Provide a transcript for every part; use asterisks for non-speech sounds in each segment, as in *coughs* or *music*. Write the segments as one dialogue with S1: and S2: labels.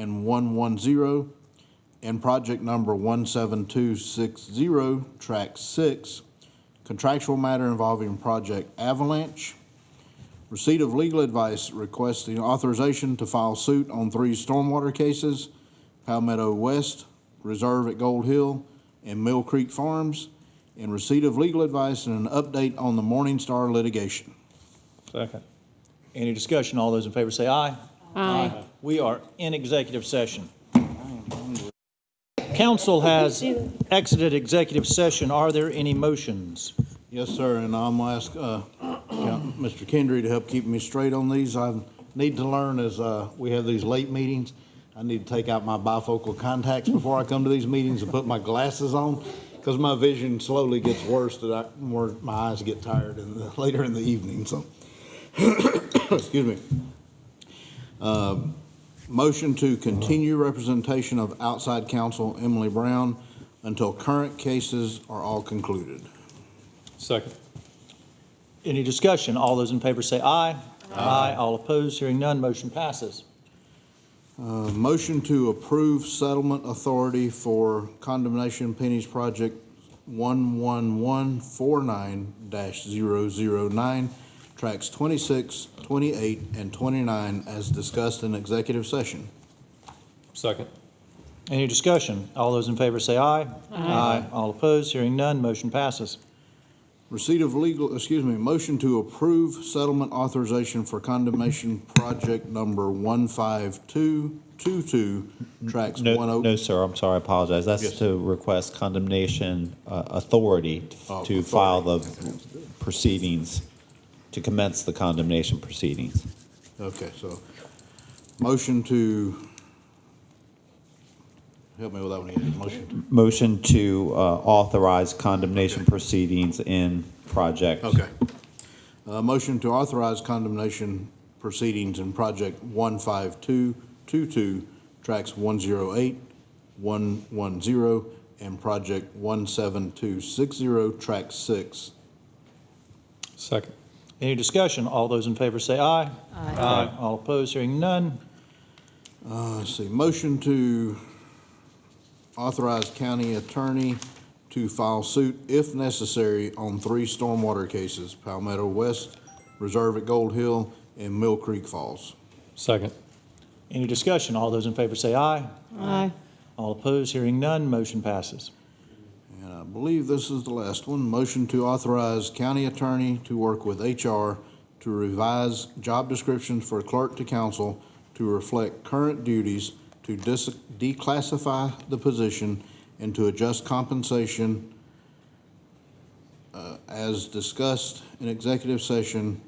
S1: and 110, and project number 17260, track 6, contractual matter involving Project Avalanche. Receipt of legal advice requesting authorization to file suit on three stormwater cases, Palmetto West, Reserve at Gold Hill, and Mill Creek Farms, and receipt of legal advice and an update on the Morningstar litigation.
S2: Second.
S3: Any discussion? All those in favor say aye. Aye. We are in executive session. Council has exited executive session. Are there any motions?
S1: Yes, sir, and I'm gonna ask, uh, Count- Mr. Kendry to help keep me straight on these. I need to learn as, uh, we have these late meetings, I need to take out my bifocal contacts before I come to these meetings and put my glasses on, because my vision slowly gets worse that I, more, my eyes get tired in the, *laughs* later in the evening, so. *coughs* Excuse me. Um, Motion to continue representation of outside counsel Emily Brown until current cases are all concluded.
S2: Second.
S3: Any discussion? All those in favor say aye. Aye. All opposed, hearing none, motion passes.
S1: A Motion to approve settlement authority for condemnation pennies project 11149-009, tracks 26, 28, and 29 as discussed in executive session.
S2: Second.
S3: Any discussion? All those in favor say aye. Aye. All opposed, hearing none, motion passes.
S1: Receipt of legal, excuse me, motion to approve settlement authorization for condemnation project number 15222, tracks 10.
S4: No, no, sir, I'm sorry, I apologize. That's to request condemnation uh, authority t-
S1: Oh,
S4: to file the proceedings, to commence the condemnation proceedings.
S1: Okay, so, motion to, help me with that one again, motion.
S4: Motion to uh, authorize condemnation proceedings in project.
S1: Okay. Uh, motion to authorize condemnation proceedings in project one five two two two, tracks 108, 110, and project one seven two six zero, track six.
S2: Second.
S3: Any discussion? All those in favor say aye. Aye. All opposed, hearing none,
S1: Let's see, motion to authorize county attorney to file suit if necessary on three stormwater cases, Palmetto West, Reserve at Gold Hill, and Mill Creek Falls.
S2: Second.
S3: Any discussion? All those in favor say aye.
S5: Aye.
S3: All opposed, hearing none, motion passes.
S1: And I believe this is the last one, motion to authorize county attorney to work with HR to revise job descriptions for clerk to council to reflect current duties, to dis- declassify the position, and to adjust compensation uh, as discussed in executive session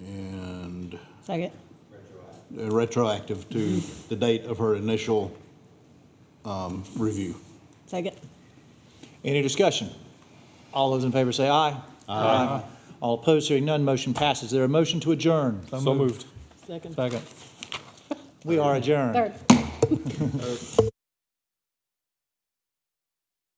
S1: and
S5: Second.
S1: uh, retroactive to the date of her initial um, review.
S5: Second.
S3: Any discussion? All those in favor say aye. Aye. All opposed, hearing none, motion passes. Is there a motion to adjourn?
S2: So moved.
S5: Second.
S3: Second. We are adjourned.
S5: Third.